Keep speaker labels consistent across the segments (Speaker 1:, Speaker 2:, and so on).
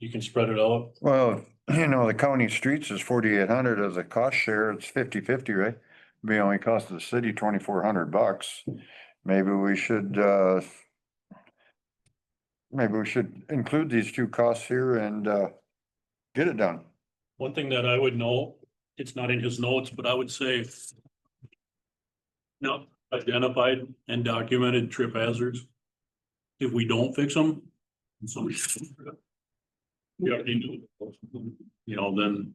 Speaker 1: You can spread it out.
Speaker 2: Well, you know, the county streets is forty-eight hundred as a cost share, it's fifty-fifty, right? Be only cost the city twenty-four hundred bucks. Maybe we should, uh, maybe we should include these two costs here and, uh, get it done.
Speaker 1: One thing that I would know, it's not in his notes, but I would say. No, identified and documented trip hazards. If we don't fix them, somebody. We already do. You know, then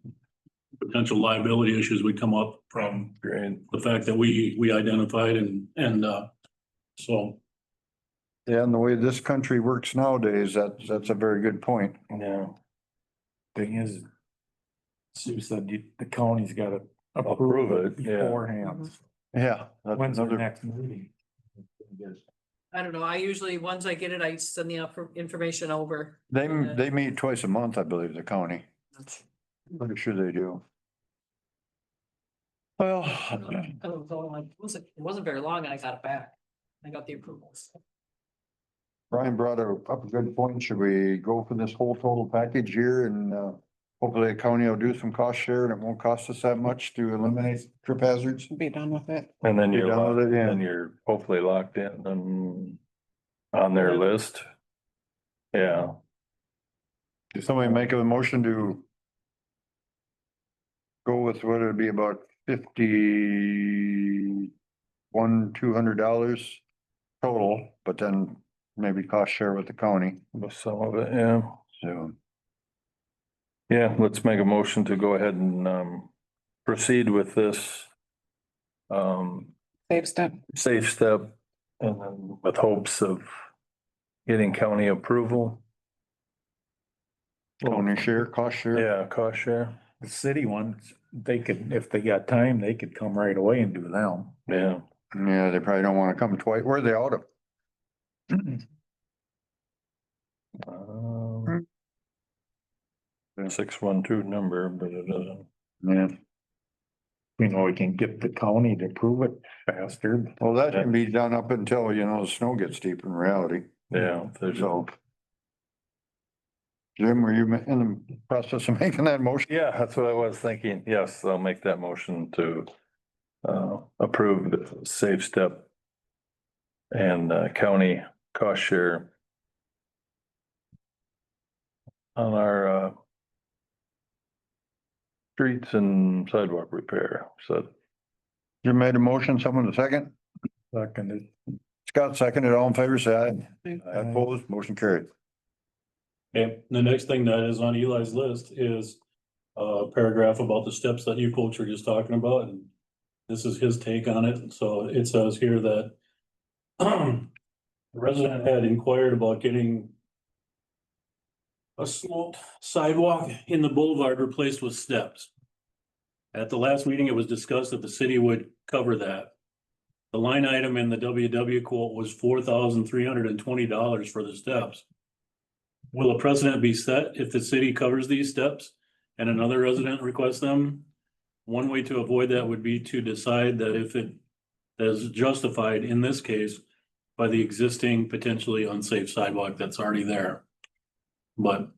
Speaker 1: potential liability issues would come up from
Speaker 3: Great.
Speaker 1: the fact that we, we identified and, and, uh, so.
Speaker 2: Yeah, and the way this country works nowadays, that's, that's a very good point.
Speaker 3: Yeah. Thing is. Sue said you- the county's gotta approve it beforehand.
Speaker 2: Yeah. that's
Speaker 3: When's our
Speaker 2: another-
Speaker 3: next meeting?
Speaker 4: I don't know, I usually, once I get it, I send the infor- information over.
Speaker 2: They, they meet twice a month, I believe, the county. Pretty sure they do. Well,
Speaker 4: I was all like, It wasn't, it wasn't very long and I got it back. I got the approvals.
Speaker 2: Brian brought a- up a good point. Should we go for this whole total package here and uh, hopefully the county will do some cost share and it won't cost us that much to eliminate trip hazards?
Speaker 5: Be done with it.
Speaker 3: And then
Speaker 2: You're
Speaker 3: you're,
Speaker 2: done with
Speaker 3: locked-
Speaker 2: it, yeah.
Speaker 3: then you're hopefully locked in and on their list. Yeah,
Speaker 2: Did somebody make a motion to go with what it'd be about fifty-one, two hundred dollars total, but then maybe cost share with the county,
Speaker 3: with some of it, yeah.
Speaker 2: so.
Speaker 3: Yeah, let's make a motion to go ahead and um proceed with this. Um,
Speaker 5: Save step.
Speaker 3: safe step and then with hopes of getting county approval.
Speaker 2: County share, cost share?
Speaker 3: Yeah, cost share.
Speaker 6: The city ones, they could, if they got time, they could come right away and do them.
Speaker 3: Yeah,
Speaker 2: Yeah, they probably don't wanna come twice. Where are they out of?
Speaker 3: um. Six one two number, but it doesn't.
Speaker 2: Yeah.
Speaker 6: You know, we can get the county to approve it faster. but
Speaker 2: Well, that can be done up until, you know, the snow gets deep in reality,
Speaker 3: Yeah, there's,
Speaker 2: so. Jim, were you ma- in the process of making that motion?
Speaker 3: yeah, that's what I was thinking. Yes, I'll make that motion to uh approve the safe step and uh, county cost share on our uh streets and sidewalk repair. So
Speaker 2: You made a motion, someone to second?
Speaker 6: Second,
Speaker 2: Scott seconded, all in favor, say aye.
Speaker 5: Aye.
Speaker 2: Opposed, motion carried.
Speaker 1: Okay, the next thing that is on Eli's list is uh, a paragraph about the steps that you folks were just talking about, and this is his take on it, so it says here that the resident had inquired about getting a sloped sidewalk in the boulevard replaced with steps. At the last meeting, it was discussed that the city would cover that. The line item in the WW quote was four thousand three hundred and twenty dollars for the steps. Will a precedent be set if the city covers these steps and another resident requests them? One way to avoid that would be to decide that if it is justified in this case by the existing potentially unsafe sidewalk that's already there. But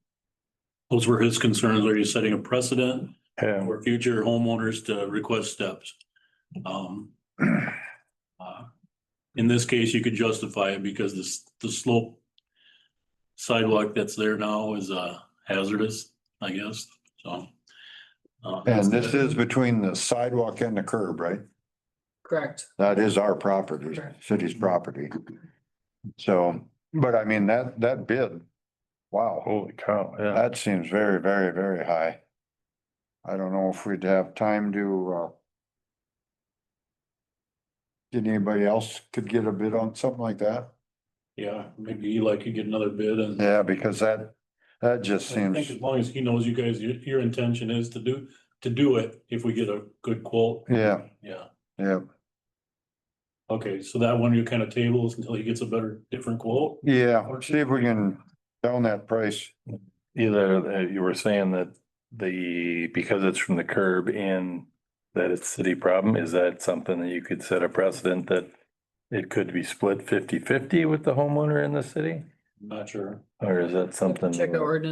Speaker 1: those were his concerns. Are you setting a precedent
Speaker 3: yeah,
Speaker 1: for future homeowners to request steps? Um, uh, in this case, you could justify it because the, s- the slope sidewalk that's there now is, uh, hazardous, I guess, so. uh,
Speaker 2: And this is between the sidewalk and the curb, right?
Speaker 4: Correct.
Speaker 2: That is our property, city's property. So, but I mean, that, that bid, wow,
Speaker 3: holy cow, yeah.
Speaker 2: that seems very, very, very high. I don't know if we'd have time to, uh, did anybody else could get a bid on something like that?
Speaker 1: Yeah, maybe Eli could get another bid and.
Speaker 2: Yeah, because that, that just
Speaker 1: I think
Speaker 2: seems,
Speaker 1: As long as he knows you guys, your, your intention is to do, to do it if we get a good quote,
Speaker 2: yeah,
Speaker 1: yeah.
Speaker 2: yeah,
Speaker 1: Okay, so that one you kind of tables until he gets a better, different quote?
Speaker 2: yeah. See if we can down that price.
Speaker 3: Either uh, you were saying that the, because it's from the curb in that it's city problem, is that something that you could set a precedent that it could be split fifty fifty with the homeowner in the city?
Speaker 1: Not sure.
Speaker 3: Or is that something?
Speaker 4: Check the ordinance